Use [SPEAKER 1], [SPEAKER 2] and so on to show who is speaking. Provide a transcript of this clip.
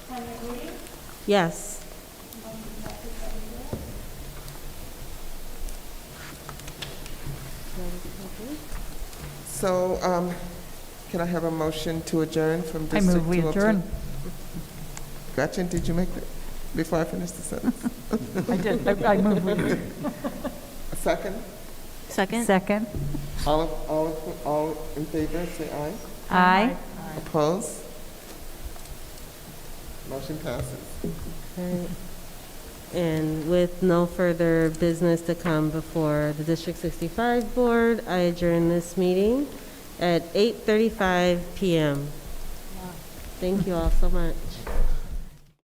[SPEAKER 1] Yes.
[SPEAKER 2] So, um, can I have a motion to adjourn from
[SPEAKER 3] I
[SPEAKER 2] District
[SPEAKER 3] move
[SPEAKER 2] 202?
[SPEAKER 3] we adjourn.
[SPEAKER 2] Gretchen, did you make it, before I finish the sentence?
[SPEAKER 3] I did, I I move we adjourn.
[SPEAKER 2] A second?
[SPEAKER 1] Second?
[SPEAKER 3] Second?
[SPEAKER 2] All, of- all, of- all in favor, say aye.
[SPEAKER 3] Aye.
[SPEAKER 2] Opposed? Motion passes.
[SPEAKER 1] Alright. And with no further business to come before the District 65 Board, I adjourn this meeting at 8:35 PM. Thank you all so much.